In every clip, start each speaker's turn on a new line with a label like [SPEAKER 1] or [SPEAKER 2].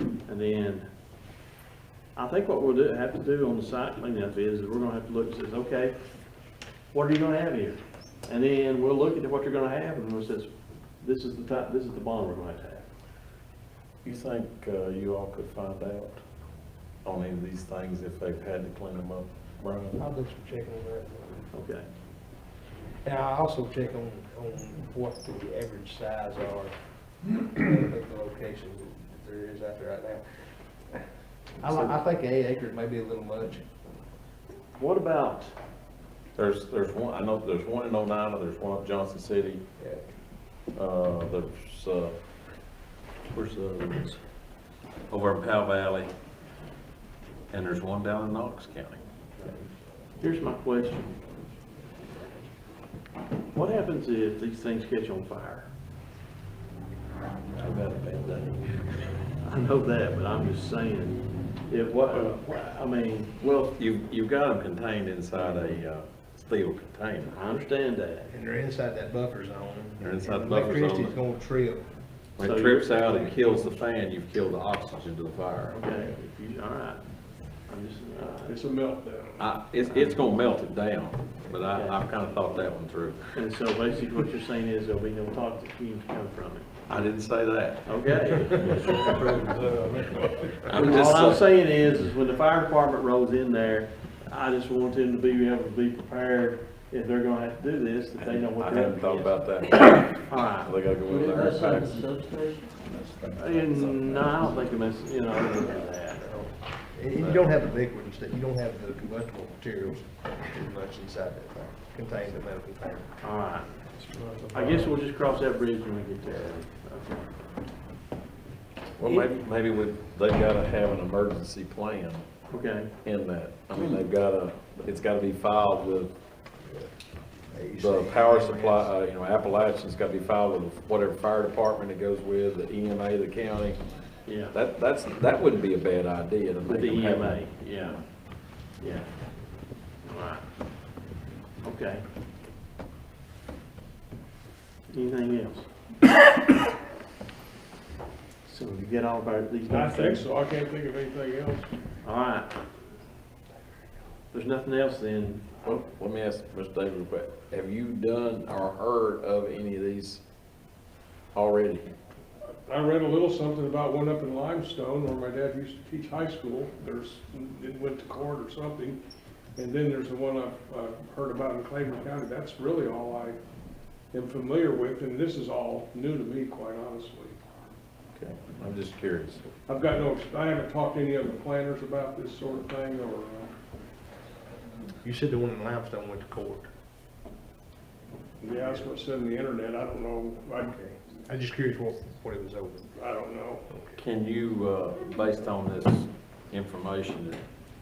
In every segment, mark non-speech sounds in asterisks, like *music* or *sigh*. [SPEAKER 1] And then, I think what we'll do, have to do on the site cleanup is, we're gonna have to look, says, okay, what are you gonna have here? And then we'll look at what you're gonna have, and we'll says, this is the type, this is the bond we're gonna have to have.
[SPEAKER 2] You think uh, you all could find out on any of these things if they've had to clean them up, Brian?
[SPEAKER 3] I'll do some checking on that.
[SPEAKER 1] Okay,
[SPEAKER 3] And I also check on, on what the average size are, of the location that there is out there right now. I, li- I think eight acres may be a little much.
[SPEAKER 1] what about,
[SPEAKER 2] There's, there's one, I know there's one in Oneida, there's one up Johnson City,
[SPEAKER 3] Yeah.
[SPEAKER 2] uh, there's, uh, where's the other ones? Over in Powell Valley, and there's one down in Knox County.
[SPEAKER 1] here's my question. What happens if these things catch on fire?
[SPEAKER 2] I've had a bad day.
[SPEAKER 1] I know that, but I'm just saying, if what, I mean, well,
[SPEAKER 2] You, you've got them contained inside a uh, steel container.
[SPEAKER 1] I understand that.
[SPEAKER 3] And they're inside that buffer zone.
[SPEAKER 2] They're inside
[SPEAKER 3] And
[SPEAKER 2] the buffer zone.
[SPEAKER 3] Electricity's gonna trip.
[SPEAKER 2] When
[SPEAKER 1] So
[SPEAKER 2] it
[SPEAKER 1] you-
[SPEAKER 2] trips out and kills the fan, you've killed the oxygen to the fire.
[SPEAKER 1] Okay, if you, all right. I'm just, uh, all right.
[SPEAKER 4] It's a meltdown.
[SPEAKER 2] I, it's, it's gonna melt it down, but I, I've kinda thought that one through.
[SPEAKER 1] And so basically what you're saying is there'll be no toxic fumes come from it.
[SPEAKER 2] I didn't say that.
[SPEAKER 1] Okay.
[SPEAKER 2] I'm
[SPEAKER 1] All I'm
[SPEAKER 2] just, uh,
[SPEAKER 1] saying is, is when the fire department rolls in there, I just want them to be able to be prepared if they're gonna have to do this, that they know what
[SPEAKER 2] I
[SPEAKER 1] they're
[SPEAKER 2] hadn't
[SPEAKER 1] up
[SPEAKER 2] thought
[SPEAKER 1] against.
[SPEAKER 2] about that.
[SPEAKER 1] All right.
[SPEAKER 2] They gotta go in there. and pack.
[SPEAKER 1] And no, I don't think it mess, you know, I don't know that.
[SPEAKER 3] And you don't have the liquids, that you don't have the combustible materials too much inside that thing, contained in that container.
[SPEAKER 1] All right. I guess we'll just cross that bridge when we get there. Okay.
[SPEAKER 2] Well, maybe, maybe we, they gotta have an emergency plan
[SPEAKER 1] Okay,
[SPEAKER 2] in that. I mean, they've gotta, it's gotta be filed with the
[SPEAKER 3] AC.
[SPEAKER 2] power supply, uh, you know, Appalachian's gotta be filed with whatever fire department it goes with, the EMA, the county.
[SPEAKER 1] yeah.
[SPEAKER 2] That, that's, that wouldn't be a bad idea to
[SPEAKER 1] With
[SPEAKER 2] make
[SPEAKER 1] the
[SPEAKER 2] them have-
[SPEAKER 1] EMA, yeah, yeah. All right. Okay. Anything else? *coughs* So you get all about these.
[SPEAKER 4] I think so, I can't think of anything else.
[SPEAKER 1] All right. There's nothing else then.
[SPEAKER 2] Well, let me ask Mr. Davis, a question. have you done or heard of any of these already?
[SPEAKER 4] I read a little something about one up in Limestone where my dad used to teach high school. There's, it went to court or something. And then there's the one I've, i heard about in Claymore County. That's really all I am familiar with, and this is all new to me, quite honestly.
[SPEAKER 2] Okay, I'm just curious.
[SPEAKER 4] I've got no, I haven't talked to any other planners about this sort of thing or, uh,
[SPEAKER 3] You said the one in limestone went to court.
[SPEAKER 4] yeah, that's what's in the internet. I don't know. I,
[SPEAKER 3] I'm just curious what, what it was over.
[SPEAKER 4] I don't know.
[SPEAKER 2] Can you, uh, based on this information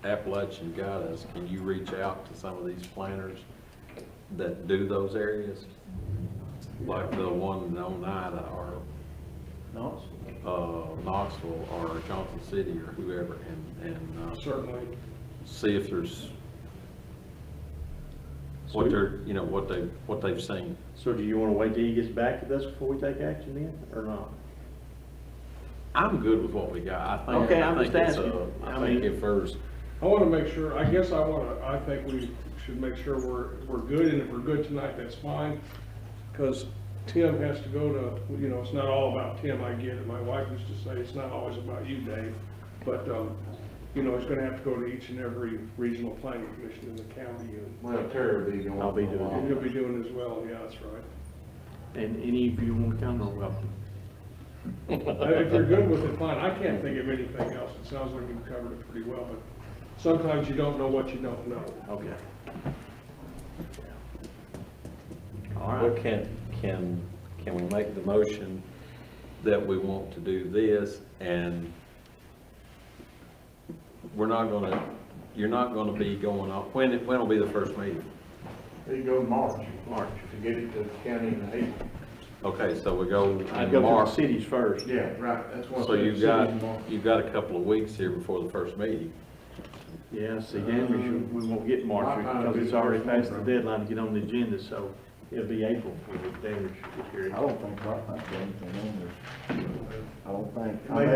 [SPEAKER 2] that Appalachian got us, can you reach out to some of these planners that do those areas? Like the one in Oneida or, uh, Knoxville or Johnson City or whoever and, and, uh,
[SPEAKER 4] Certainly.
[SPEAKER 2] see if there's, what they're, you know, what they, what they've seen.
[SPEAKER 1] So do you want to wait till he gets back with us before we take action then, or not?
[SPEAKER 2] I'm good with what we got. I think,
[SPEAKER 1] Okay, I'm
[SPEAKER 2] I think
[SPEAKER 1] just
[SPEAKER 2] it's, uh,
[SPEAKER 1] asking. I
[SPEAKER 2] I think
[SPEAKER 1] mean-
[SPEAKER 2] if there's,
[SPEAKER 4] I want to make sure, I guess I want to, I think we should make sure we're, we're good, and if we're good tonight, that's fine. Because Tim has to go to, you know, it's not all about Tim, I get it, my wife used to say, it's not always about you, Dave. But, um, you know, he's going to have to go to each and every regional planning commission in the county, and-
[SPEAKER 5] Well, Terry will be going.
[SPEAKER 1] I'll be
[SPEAKER 5] for a
[SPEAKER 1] doing
[SPEAKER 5] while.
[SPEAKER 4] and he'll be doing as well, yeah, that's right.
[SPEAKER 1] And any of you want to come, are welcome.
[SPEAKER 4] And Uh, If you're good with it, fine, I can't think of anything else, it sounds like you've covered it pretty well, but sometimes you don't know what you don't know.
[SPEAKER 1] Okay. All
[SPEAKER 2] well,
[SPEAKER 1] right.
[SPEAKER 2] can, can, can we make the motion that we want to do this and we're not gonna, you're not gonna be going off, when, when'll be the first meeting?
[SPEAKER 5] He go in March
[SPEAKER 1] March.
[SPEAKER 5] to get it to the county in the eighth.
[SPEAKER 2] Okay, so we go
[SPEAKER 1] I'd go
[SPEAKER 2] in
[SPEAKER 1] to the
[SPEAKER 2] March.
[SPEAKER 1] cities first.
[SPEAKER 5] Yeah, right, that's what. I
[SPEAKER 2] So
[SPEAKER 5] said,
[SPEAKER 2] you've
[SPEAKER 5] city
[SPEAKER 2] got,
[SPEAKER 5] in March.
[SPEAKER 2] you've got a couple of weeks here before the first meeting.
[SPEAKER 1] Yeah, see, then we should, we won't get March, because it's already past the deadline to get on the agenda, so it'll be April for the damage
[SPEAKER 6] I don't think, I don't think anything on there. I don't think.
[SPEAKER 5] Maybe